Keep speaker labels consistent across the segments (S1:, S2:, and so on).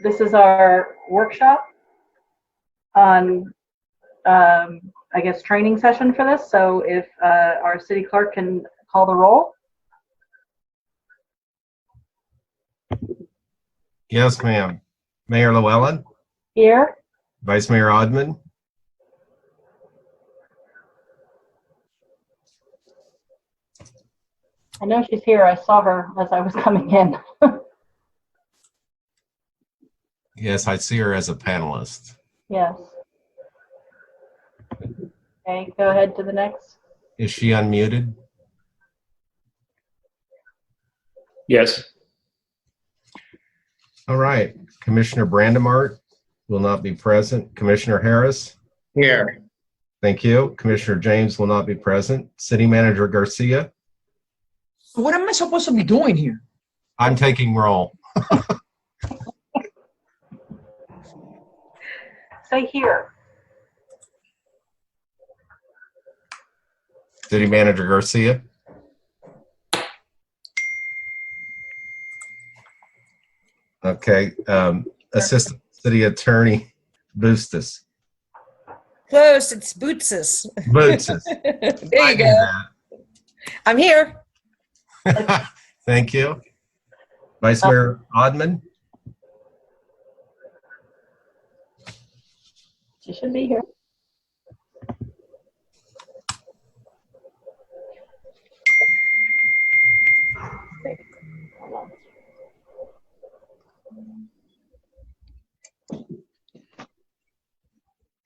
S1: this is our workshop on, um, I guess, training session for this. So if uh, our city clerk can call the roll.
S2: Yes, ma'am. Mayor Llewellyn,
S1: Here,
S2: Vice Mayor Odman,
S1: I know she's here. I saw her as I was coming in.
S2: yes, I see her as a panelist.
S1: Yes. Okay, go ahead to the next.
S2: Is she unmuted?
S3: Yes.
S2: All right, Commissioner Brandimart will not be present. Commissioner Harris?
S3: Here.
S2: Thank you. Commissioner James will not be present. City Manager Garcia?
S4: What am I supposed to be doing here?
S2: I'm taking roll.
S1: Say here.
S2: City Manager Garcia? Okay, um, Assistant City Attorney Bustos.
S5: Close. It's Bootsis.
S2: Bustos.
S5: there
S2: I
S5: you
S2: knew
S5: go.
S2: that.
S5: I'm here.
S2: Thank you. Vice Mayor Odman,
S1: She should be here.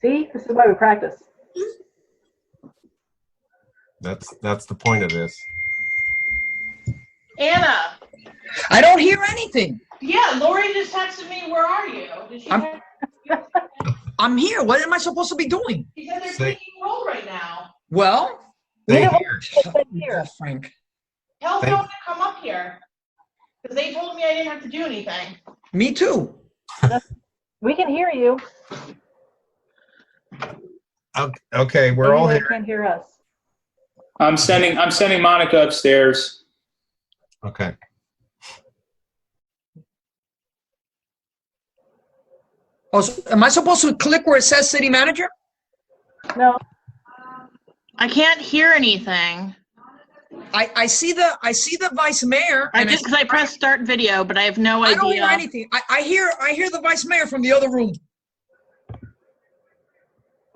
S1: See, this is why we practice.
S2: that's, that's the point of this.
S6: Anna,
S4: I don't hear anything.
S6: yeah, Lori just texted me, where are you? Did she
S4: I'm-
S6: have-
S4: I'm here. What am I supposed to be doing?
S6: She said they're
S2: Say-
S6: taking roll right now.
S4: Well, Oh,
S2: They
S1: Yeah.
S2: hear.
S1: Here.
S4: Frank.
S6: Tell
S2: Thank-
S6: someone to come up here. Because they told me I didn't have to do anything.
S4: Me too.
S1: We can hear you.
S2: Ok- Okay, we're all
S1: Maybe
S2: here.
S1: they Can't hear us.
S3: I'm sending, I'm sending Monica upstairs.
S2: Okay.
S4: Oh, so am I supposed to click where it says city manager?
S1: No,
S6: I can't hear anything.
S4: I, I see the I see the vice mayor. and
S6: because I pressed start video, but I have no
S4: I don't hear anything. I, I hear I hear the vice mayor from the other room.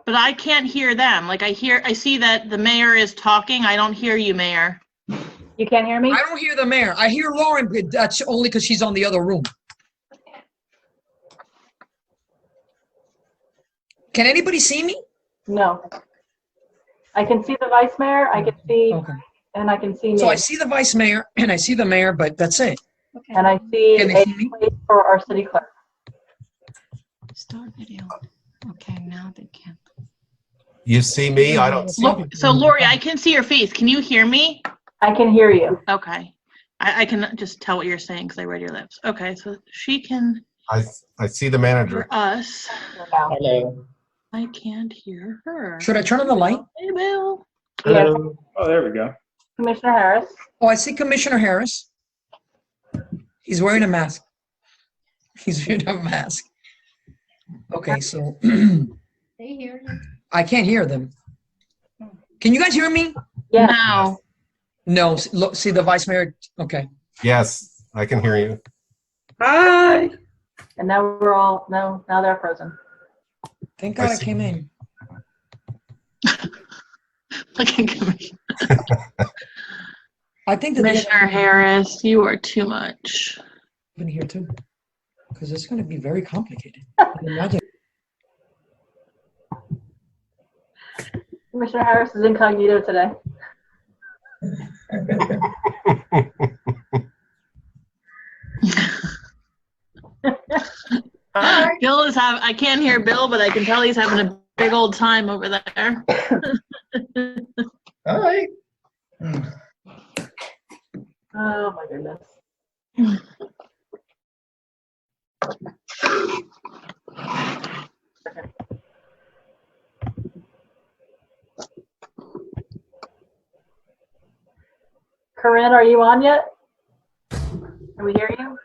S6: But I can't hear them. Like I hear, I see that the mayor is talking. I don't hear you, mayor.
S1: you can't hear me?
S4: I don't hear the mayor. I hear Lauren, but that's only because she's on the other room. Can anybody see me?
S1: No. I can see the vice mayor, I can see,
S4: Okay.
S1: and I can see
S4: So
S1: me.
S4: I see the vice mayor and I see the mayor, but that's it.
S1: And I see
S4: Can
S1: a
S4: they see me?
S1: place for our city clerk.
S7: Start video. Okay, now they can.
S2: You see me? I don't see.
S6: Lo- So Lori, I can see your face. Can you hear me?
S1: I can hear you.
S6: Okay. I, I can just tell what you're saying because I read your lips. Okay, so she can
S2: I, I see the manager.
S6: hear us.
S1: now.
S3: Hello.
S6: I can't hear her. Oh,
S4: Should I turn on the light?
S6: Hey, Bill.
S1: Yes,
S3: Oh, there we go.
S1: Commissioner Harris,
S4: Oh, I see Commissioner Harris. He's wearing a mask. He's wearing a mask. Okay, so
S7: They hear you.
S4: I can't hear them. Can you guys hear me?
S1: Yeah.
S6: No.
S4: No, s- look, see the vice mayor, okay.
S2: Yes, I can hear you.
S5: Hi.
S1: and now we're all, no, now they're frozen.
S4: Thank
S2: I
S4: God I
S2: see.
S4: came in.
S6: Looking Commissioner
S4: I think that they
S6: Commissioner Harris, you are too much.
S4: been here too, because it's gonna be very complicated. Imagine-
S1: Commissioner Harris is incognito today.
S6: Bill is having, I can't hear Bill, but I can tell he's having a big old time over there.
S2: All right.
S1: Oh, my goodness. Corinne, are you on yet? Can we hear you?